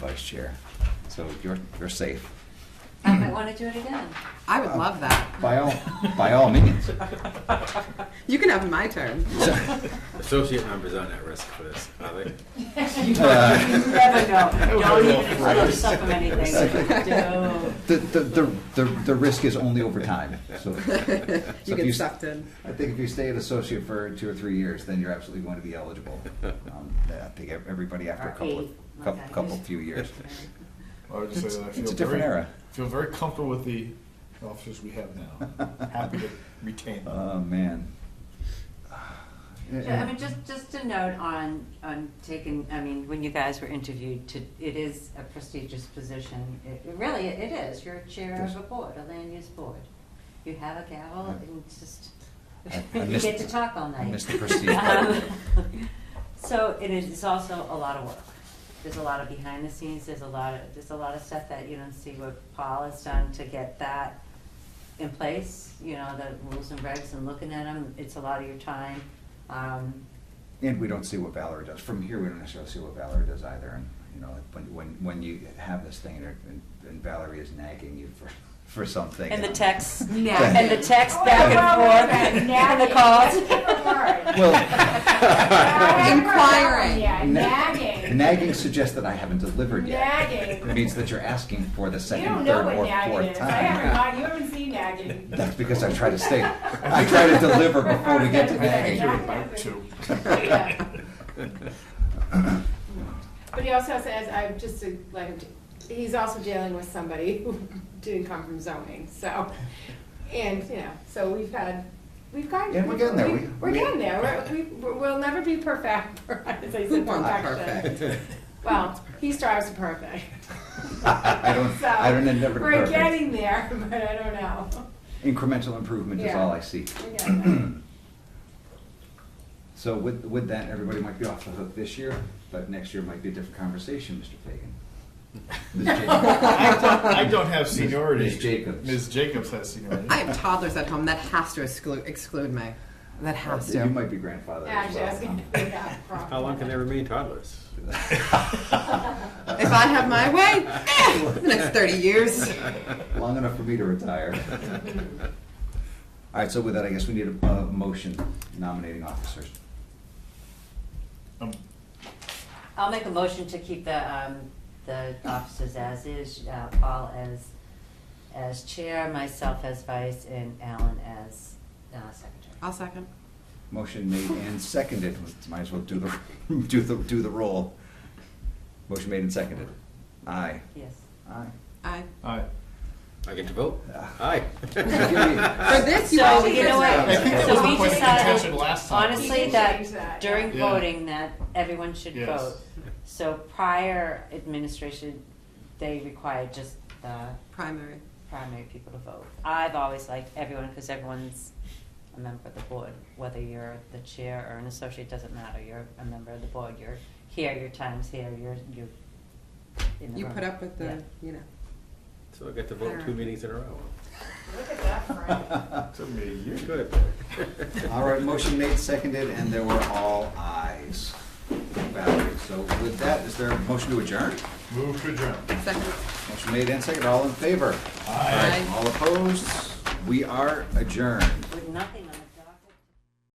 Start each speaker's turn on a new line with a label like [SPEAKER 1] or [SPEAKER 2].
[SPEAKER 1] vice chair. So you're, you're safe.
[SPEAKER 2] I might want to do it again.
[SPEAKER 3] I would love that.
[SPEAKER 1] Uh, By all, by all means.
[SPEAKER 3] You can have my turn.
[SPEAKER 1] So-
[SPEAKER 4] Associate members aren't at risk for this, are they?
[SPEAKER 2] You never know. Don't even close up of anything. No.
[SPEAKER 1] The, the, the, the, the risk is only over time, so.
[SPEAKER 3] you
[SPEAKER 1] if
[SPEAKER 3] get
[SPEAKER 1] you-
[SPEAKER 3] sucked in.
[SPEAKER 1] I think if you stay an associate for two or three years, then you're absolutely going to be eligible. Um, I think ev- everybody after a
[SPEAKER 2] Or
[SPEAKER 1] couple,
[SPEAKER 2] eight,
[SPEAKER 1] of-
[SPEAKER 2] like
[SPEAKER 1] couple,
[SPEAKER 2] that.
[SPEAKER 1] couple few years.
[SPEAKER 5] I would just say that I
[SPEAKER 1] It's-
[SPEAKER 5] feel
[SPEAKER 1] it's a different
[SPEAKER 5] very-
[SPEAKER 1] era.
[SPEAKER 5] Feel very comfortable with the officers we have now. Happy to retain them.
[SPEAKER 1] Oh, man.
[SPEAKER 2] Yeah, I mean, just, just a note on, on taking, I mean, when you guys were interviewed, to, it is a prestigious position. It, it really, it is. You're a chair
[SPEAKER 1] Yes.
[SPEAKER 2] of a board, a land use board. You have a gavel
[SPEAKER 1] Yeah.
[SPEAKER 2] and it's just,
[SPEAKER 1] I- I
[SPEAKER 2] you
[SPEAKER 1] missed-
[SPEAKER 2] get to talk all
[SPEAKER 1] I
[SPEAKER 2] night.
[SPEAKER 1] missed the prestige
[SPEAKER 2] Um,
[SPEAKER 1] part.
[SPEAKER 2] So it is, it's also a lot of work. There's a lot of behind the scenes, there's a lot of, there's a lot of stuff that you don't see what Paul has done to get that in place, you know, the rules and regs and looking at them, it's a lot of your time. Um,
[SPEAKER 1] And we don't see what Valerie does. From here, we don't necessarily see what Valerie does either. And, you know, when, when, when you have this thing and, and Valerie is nagging you for, for something. Um,
[SPEAKER 2] And the texts,
[SPEAKER 3] Nagging.
[SPEAKER 2] and the texts back and forth, and the calls.
[SPEAKER 1] Well.
[SPEAKER 3] Inquiring.
[SPEAKER 6] Yeah, nagging.
[SPEAKER 1] Nagging suggests that I haven't delivered yet.
[SPEAKER 6] Nagging.
[SPEAKER 1] It means that you're asking for the
[SPEAKER 6] You
[SPEAKER 1] second,
[SPEAKER 6] don't know
[SPEAKER 1] third,
[SPEAKER 6] what
[SPEAKER 1] or
[SPEAKER 6] nagging
[SPEAKER 1] fourth
[SPEAKER 6] is. I haven't,
[SPEAKER 1] time.
[SPEAKER 6] got- you haven't seen nagging.
[SPEAKER 1] That's because I try to stay, I try to deliver before we get to
[SPEAKER 5] I think
[SPEAKER 1] nagging.
[SPEAKER 5] you're about to.
[SPEAKER 6] Yeah. But he also says, I'm just to let him, he's also dealing with somebody who didn't come from zoning, so. And, you know, so we've had, we've got.
[SPEAKER 1] Yeah, we're getting there. We-
[SPEAKER 6] We're
[SPEAKER 1] we-
[SPEAKER 6] getting there. We're- we- We'll never be perfect, as I
[SPEAKER 3] Who
[SPEAKER 6] said,
[SPEAKER 3] wants
[SPEAKER 6] perfection.
[SPEAKER 3] perfect?
[SPEAKER 6] Well, he strives to perfect.
[SPEAKER 1] I don't,
[SPEAKER 6] So,
[SPEAKER 1] I don't end up with
[SPEAKER 6] We're
[SPEAKER 1] perfect.
[SPEAKER 6] getting there, but I don't know.
[SPEAKER 1] Incremental improvement is
[SPEAKER 6] Yeah.
[SPEAKER 1] all I see.
[SPEAKER 6] We're getting there.
[SPEAKER 1] So with, with that, everybody might be off the hook this year, but next year might be a different conversation, Mr. Fagan. Ms.
[SPEAKER 5] I
[SPEAKER 1] Jacobs.
[SPEAKER 5] don't, I don't have seniority.
[SPEAKER 1] Ms. Jacobs.
[SPEAKER 5] Ms. Jacobs has seniority.
[SPEAKER 3] I have toddlers at home. That has to exclude, exclude me. That has
[SPEAKER 1] Uh, You
[SPEAKER 3] to.
[SPEAKER 1] might be grandfathered as
[SPEAKER 6] Actually, I was
[SPEAKER 1] well.
[SPEAKER 6] gonna bring that up.
[SPEAKER 4] How long can they remain toddlers?
[SPEAKER 3] If I have my way, eh, the next 30 years.
[SPEAKER 1] Long enough for me to retire. All right, so with that, I guess we need a, a motion nominating officers.
[SPEAKER 5] Um,
[SPEAKER 2] I'll make a motion to keep the, um, the officers as is, uh, Paul as, as chair, myself as vice, and Alan as, uh, secretary.
[SPEAKER 3] I'll second.
[SPEAKER 1] Motion made and seconded, might as well do the, do the, do the roll. Motion made and seconded. Aye.
[SPEAKER 2] Yes.
[SPEAKER 1] Aye.
[SPEAKER 3] I.
[SPEAKER 5] I,
[SPEAKER 4] I get to vote?
[SPEAKER 1] Ah.
[SPEAKER 4] Aye.
[SPEAKER 3] For this, you
[SPEAKER 2] So,
[SPEAKER 3] actually
[SPEAKER 2] you know
[SPEAKER 3] get
[SPEAKER 2] what?
[SPEAKER 5] I think that
[SPEAKER 2] So
[SPEAKER 5] was
[SPEAKER 2] we
[SPEAKER 5] the point of contention
[SPEAKER 2] decided,
[SPEAKER 5] last time.
[SPEAKER 2] honestly,
[SPEAKER 6] We can change
[SPEAKER 2] that
[SPEAKER 6] that,
[SPEAKER 2] during
[SPEAKER 5] yeah.
[SPEAKER 2] voting, that everyone should
[SPEAKER 5] Yes.
[SPEAKER 2] vote. So prior administration, they required just the
[SPEAKER 3] primary.
[SPEAKER 2] primary people to vote. I've always liked everyone, because everyone's a member of the board, whether you're the chair or an associate, doesn't matter, you're a member of the board, you're here, your time's here, you're, you're in the
[SPEAKER 3] You
[SPEAKER 2] room.
[SPEAKER 3] put up with the,
[SPEAKER 2] Yeah.
[SPEAKER 3] you know.
[SPEAKER 4] So I get to vote two meetings in a row.
[SPEAKER 6] Look at that, Frank.
[SPEAKER 5] took me a year.
[SPEAKER 4] Good.
[SPEAKER 1] All right, motion made, seconded, and there were all ayes. Valerie, so with that, is there a motion to adjourn?
[SPEAKER 5] Move to adjourn.
[SPEAKER 3] Second.
[SPEAKER 1] Motion made and seconded, all in favor?
[SPEAKER 3] Aye.
[SPEAKER 1] All opposed? We are adjourned.
[SPEAKER 2] With nothing on.